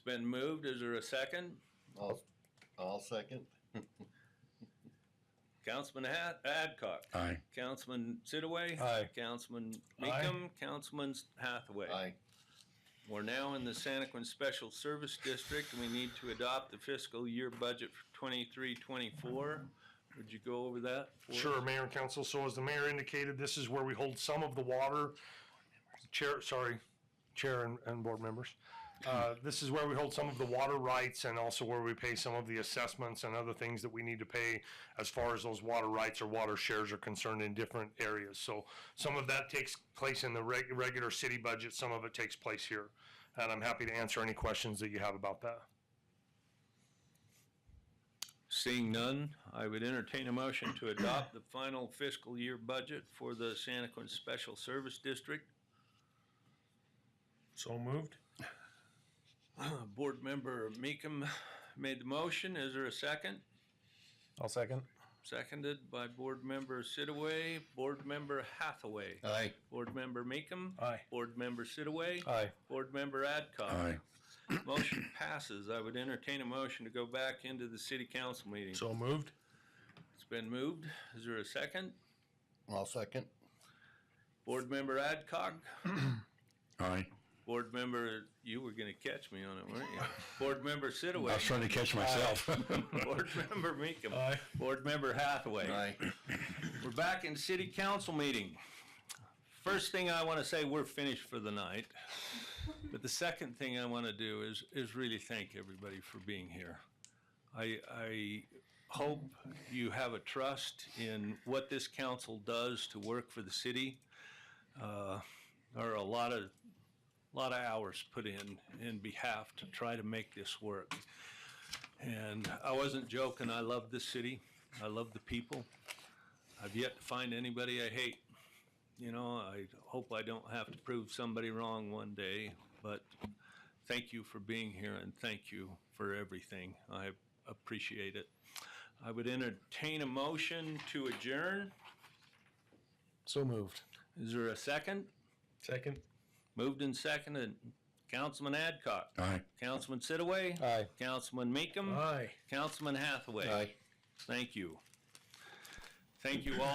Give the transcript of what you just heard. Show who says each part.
Speaker 1: been moved. Is there a second?
Speaker 2: I'll, I'll second.
Speaker 1: Councilman Ad- Adcock.
Speaker 3: Aye.
Speaker 1: Councilman Sitaway.
Speaker 3: Aye.
Speaker 1: Councilman Meekum. Councilman Hathaway.
Speaker 2: Aye.
Speaker 1: We're now in the Santaquin Special Service District, and we need to adopt the fiscal year budget for 23-24. Would you go over that? for us?
Speaker 4: Sure, Mayor and Council. So as the mayor indicated, this is where we hold some of the water. Chair, sorry, Chair and, and board members. Uh, this is where we hold some of the water rights and also where we pay some of the assessments and other things that we need to pay as far as those water rights or water shares are concerned in different areas. So some of that takes place in the reg- regular city budget, some of it takes place here. And I'm happy to answer any questions that you have about that.
Speaker 1: Seeing none, I would entertain a motion to adopt the final fiscal year budget for the Santaquin Special Service District.
Speaker 4: So moved.
Speaker 1: Board Member Meekum made the motion. Is there a second?
Speaker 3: I'll second.
Speaker 1: Seconded by Board Member Sitaway, Board Member Hathaway.
Speaker 2: Aye.
Speaker 1: Board Member Meekum.
Speaker 3: Aye.
Speaker 1: Board Member Sitaway.
Speaker 3: Aye.
Speaker 1: Board Member Adcock.
Speaker 3: Aye.
Speaker 1: Motion passes. I would entertain a motion to go back into the city council meeting.
Speaker 3: So moved?
Speaker 1: It's been moved. Is there a second?
Speaker 2: I'll second.
Speaker 1: Board Member Adcock.
Speaker 3: Aye.
Speaker 1: Board Member, you were gonna catch me on it, weren't you? Board Member
Speaker 3: I was
Speaker 1: Sitaway.
Speaker 3: trying to catch myself.
Speaker 1: Board Member Meekum.
Speaker 3: Aye.
Speaker 1: Board Member Hathaway.
Speaker 2: Aye.
Speaker 1: We're back in city council meeting. First thing I want to say, we're finished for the night. But the second thing I want to do is, is really thank everybody for being here. I, I hope you have a trust in what this council does to work for the city. Uh, There are a lot of, lot of hours put in, in behalf to try to make this work. And I wasn't joking, I love this city, I love the people. I've yet to find anybody I hate. You know, I hope I don't have to prove somebody wrong one day, but thank you for being here and thank you for everything. I appreciate it. I would entertain a motion to adjourn.
Speaker 3: So moved.
Speaker 1: Is there a second?
Speaker 3: Second?
Speaker 1: Moved and seconded. Councilman Adcock.
Speaker 3: Aye.
Speaker 1: Councilman Sitaway.
Speaker 3: Aye.
Speaker 1: Councilman Meekum.
Speaker 3: Aye.
Speaker 1: Councilman Hathaway.
Speaker 2: Aye.
Speaker 1: Thank you. Thank you all.